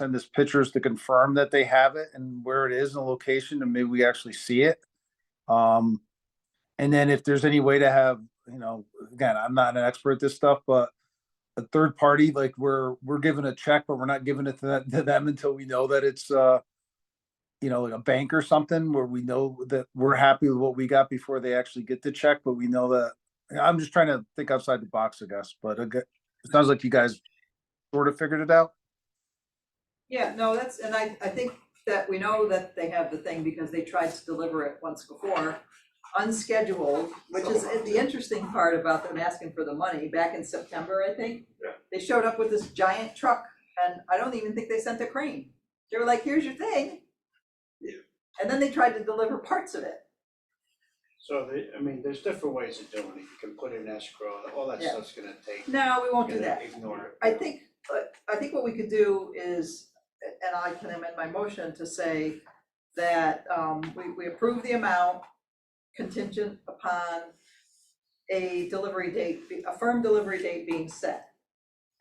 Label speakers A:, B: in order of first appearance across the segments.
A: send us pictures to confirm that they have it and where it is and the location, and maybe we actually see it. Um, and then if there's any way to have, you know, again, I'm not an expert at this stuff, but a third party, like we're, we're given a check, but we're not giving it to that, to them until we know that it's, uh, you know, like a bank or something where we know that we're happy with what we got before they actually get the check, but we know that, I'm just trying to think outside the box, I guess, but I gue- it sounds like you guys sort of figured it out.
B: Yeah, no, that's, and I, I think that we know that they have the thing because they tried to deliver it once before, unscheduled, which is the interesting part about them asking for the money, back in September, I think.
C: Yeah.
B: They showed up with this giant truck, and I don't even think they sent a crane. They were like, here's your thing.
C: Yeah.
B: And then they tried to deliver parts of it,
C: So they, I mean, there's different ways of doing it, you can put it in escrow, all that
B: Yeah.
C: stuff's gonna take.
B: no, we won't do
C: you're
B: that.
C: gonna Ignore it.
B: I think, uh, I think what we could do is, and I can amend my motion to say that um, we, we approve the amount contingent upon a delivery date, be- a firm delivery date being set.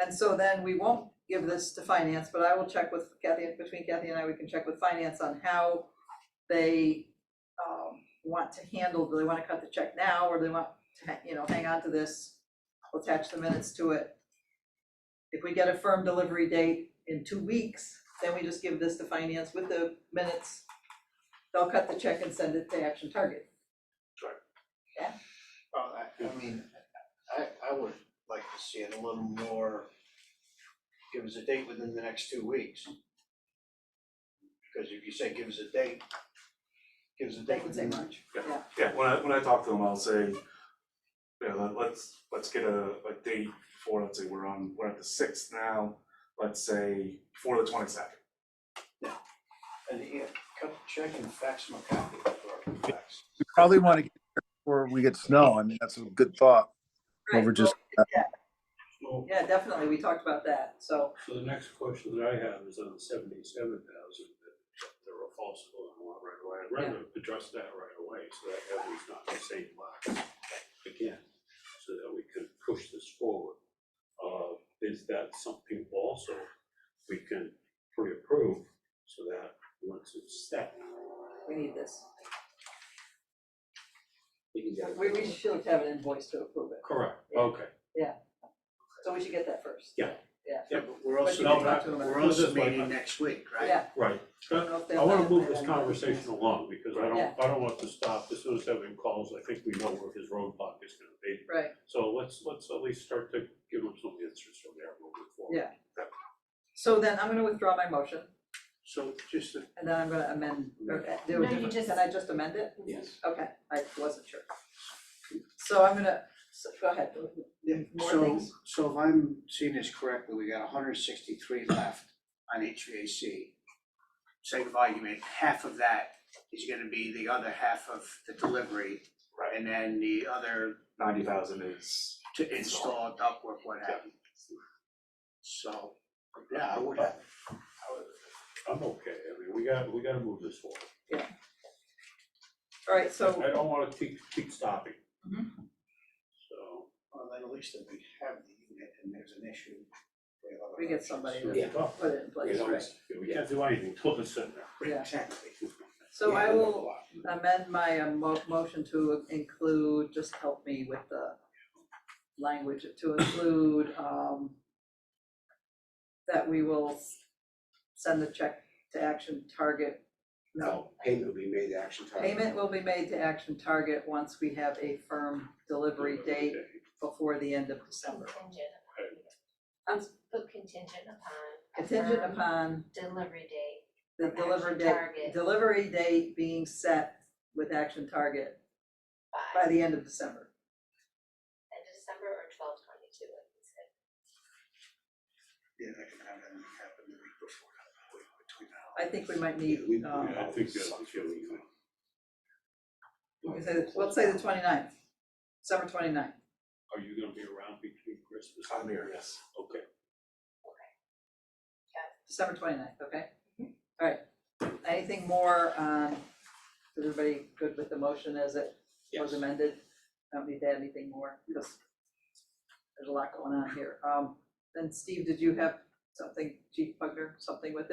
B: And so then we won't give this to finance, but I will check with Kathy, between Kathy and I, we can check with finance on how they um, want to handle, do they want to cut the check now, or do they want to, ha- you know, hang on to this? We'll attach the minutes to it if we get a firm delivery date in two weeks, then we just give this to finance with the minutes. They'll cut the check and send it to Action Target.
C: Well, I, I mean, I, I would like to see it a little more, give us a date within the next two weeks. Because if you say give us a date, give us a
B: They
C: date
B: can say
C: within,
B: March.
D: Yeah, when I, when I talk to them, I'll say, yeah, let- let's, let's get a, a date for, let's say, we're on, we're at the sixth now, let's say, before the twenty-second.
C: and yeah, cut the check and fax my copy or fax.
A: We probably want to get there before we get snow. I mean, that's a good thought. Well, we're just-
E: Well,
B: Yeah, definitely, we talked about that, so,
E: so the next question that I have is on the seventy-seven thousand, that the refalsable and want right away. I'd rather address that right away, so that everyone's not in the same box again, so that we can push this forward. Uh, is that something also we can pre-approve, so that once it's set,
B: we need this.
E: we can get it?
B: We, we should have an invoice to approve it,
E: Correct, okay.
B: so we should get that first.
E: Yeah.
B: Yeah.
C: Yeah, but we're
B: also- But you can talk to them about-
C: We're also meeting next week, right?
B: Yeah.
E: Right,
B: I don't know if they'll
E: I wanna
B: have
E: move
B: that
E: this
B: on.
E: conversation along, because I
B: Yeah.
E: don't, I don't want to stop, as soon as everyone calls, I think we know where his roadblock is gonna be.
B: Right,
E: So let's, let's at least start to give him some answers from there moving forward.
B: Yeah. so then I'm gonna withdraw my motion,
C: So just a
B: and then I'm gonna amend, or uh, do
F: No,
B: a
F: you
B: different,
F: just-
B: can I just amend it?
E: Yes.
B: Okay, I wasn't sure. So I'm gonna, so, go ahead,
C: Yeah,
B: more
C: so,
B: things.
C: so if I'm seeing this correctly, we got hundred sixty-three left on HVAC. Sake of argument, half of that is gonna be the other half of the delivery.
D: Right.
C: And then the other
D: Ninety thousand is,
C: to install ductwork, what have you. So, yeah, I would have,
E: I'm okay, I mean, we got, we gotta move this forward.
B: all right, so.
E: I don't wanna keep, keep stopping. So.
C: well, then at least if we have the unit and there's an issue. have other
B: We get
C: options.
B: somebody
E: so
B: to
E: it's tough.
B: put it in
E: You
B: place,
E: know,
B: right?
E: it's- We can't do anything till it's in there.
B: Yeah.
C: Exactly.
B: So I
C: Yeah.
B: will amend my um, mo- motion to include, just help me with the language, to include, um, that we will s- send the check to Action Target. No,
G: No, payment will be made to Action Target.
B: payment will be made to Action Target once we have a firm delivery date before the end of December.
F: Contingent
E: Right.
F: upon, put contingent upon. a
B: Contingent
F: firm
B: upon
F: Delivery date.
B: the
F: From
B: delivery
F: Action
B: date,
F: Target.
B: delivery date being set with Action Target
F: by
B: by the end of December.
F: end of December or twelve twenty-two, like you said.
C: Yeah, I can have that happen the week before, week between now.
B: I think we might need,
G: We-
B: um,
E: Yeah, I think that's what you're leaving.
B: we say, let's say the 29th, December 29th.
E: Are you gonna be around between Christmas?
D: I'm
E: and-
D: here, yes.
E: Okay,
B: December 29th. okay? All right, anything more, um, is everybody good with the motion as it was amended? Don't need to add anything more, because there's a lot going on here. Um, then Steve, did you have something, Chief Pugner, something with it?